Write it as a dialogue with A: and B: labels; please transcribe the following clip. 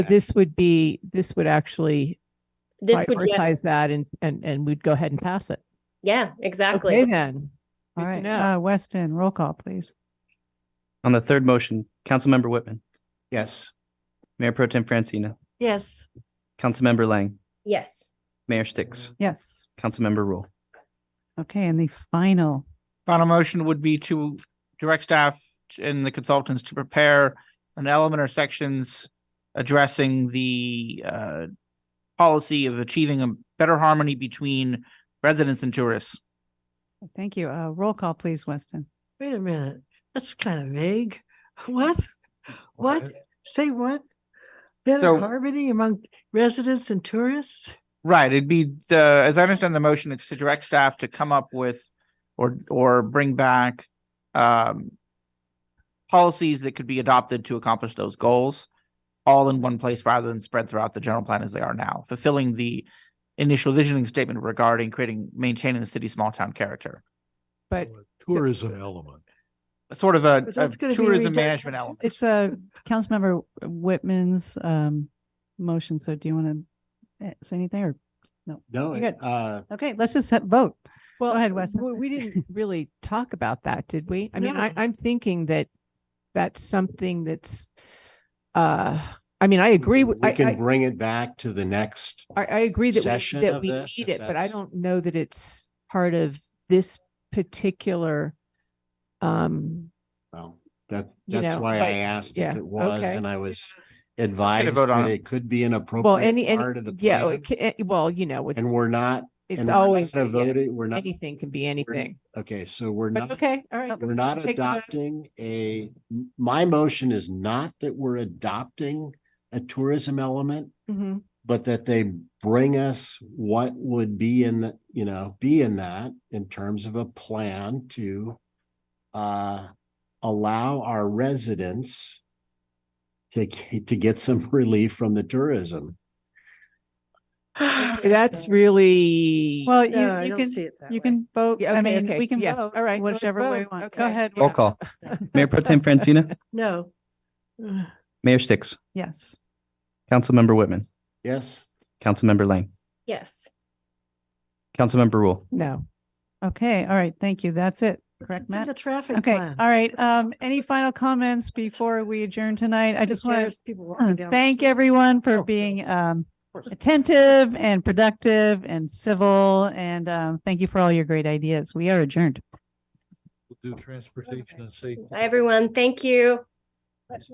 A: This would be, this would actually
B: This would, yeah,
A: prioritize that and, and, and we'd go ahead and pass it.
B: yeah,
A: Okay,
B: exactly.
A: then. Good
C: All
A: to
C: right,
A: know.
C: uh, Weston, roll call, please.
D: On the third motion, Councilmember Whitman,
E: Yes.
D: Mayor Pro Tem Francina,
F: Yes,
D: Councilmember Lang,
B: Yes,
D: Mayor Sticks,
C: Yes.
D: Councilmember Rule.
C: Okay, and the final,
E: Final motion would be to direct staff and the consultants to prepare an element or sections addressing the uh policy of achieving a better harmony between residents and tourists.
C: thank you. Uh, roll call, please, Weston.
F: wait a minute. That's kind of vague. What? What? Say what?
E: So-
F: Better harmony among residents and tourists?
E: Right, it'd be the, as I understand the motion, it's to direct staff to come up with or or bring back um policies that could be adopted to accomplish those goals all in one place rather than spread throughout the general plan as they are now, fulfilling the initial visioning statement regarding creating, maintaining the city's small town character.
C: But
G: Tourism element.
E: Sort of a
F: But
E: a
F: that's gonna be
E: tourism management
F: redundant.
E: element.
C: it's a Councilmember Whitman's um motion, so do you want to say anything or?
G: No,
C: You're
G: it- uh,
C: Okay, let's just ha- vote.
A: Well,
C: ahead, Weston.
A: We, we didn't really talk about that, did we? I mean, I,
F: No.
A: I'm thinking that that's something that's, uh, I mean, I agree with,
G: we
A: I,
G: can
A: I,
G: bring it back to the next.
A: I, I agree that we,
G: session
A: that
G: of
A: we
G: this,
A: need
G: if
A: it, but I
G: that's-
A: don't know that it's part of this particular, um,
G: Well, that,
A: You
G: that's
A: know,
G: why
A: but-
G: I asked
A: yeah,
G: if it was,
A: okay.
G: and I was advised
E: vote on
G: that
E: it.
G: it could be an
A: well, any,
G: appropriate part of the
A: any, yeah,
G: plan.
A: it ca- eh, well, you know, it's-
G: And we're not,
A: it's
G: and we're
A: always,
G: not
A: yeah,
G: voting, we're not,
A: anything can be anything,
G: okay, so we're
A: but
G: not,
A: okay, all right.
G: we're not
A: take the vote.
G: adopting a, my motion is not that we're adopting a tourism element,
A: Mhm.
G: but that they bring us what would be in the, you know, be in that in terms of a plan to uh, allow our residents to, g- to get some relief from the tourism.
A: That's really.
C: Well,
F: No, I
C: you, you
F: don't
C: can,
F: see it that
C: you
F: way.
C: can vote.
A: Yeah,
C: I
A: okay,
C: mean,
A: okay,
C: we can
A: yeah,
C: vote
A: all right, let's
C: whichever way we
A: vote,
C: want.
A: okay.
C: Go ahead.
D: Roll
C: Wes.
D: call. Mayor Pro Tem Francina,
F: No. Ugh.
D: Mayor Sticks,
C: Yes.
D: Councilmember Whitman,
G: Yes,
D: Councilmember Lang,
B: yes.
D: Councilmember Rule.
A: No.
C: Okay, all right, thank you. That's it, correct,
F: It's like
C: Matt?
F: a traffic
C: Okay,
F: plan.
C: all right. Um, any final comments before we adjourn tonight? I
F: Who
C: just want
F: cares?
C: to
F: People walking down the
C: Oh, uh, thank
F: street.
C: everyone for
F: Oh.
C: being um
F: course.
C: attentive and productive and civil and um thank you for all your great ideas. We are adjourned.
G: do transportation and safety.
B: Hi, everyone. Thank you.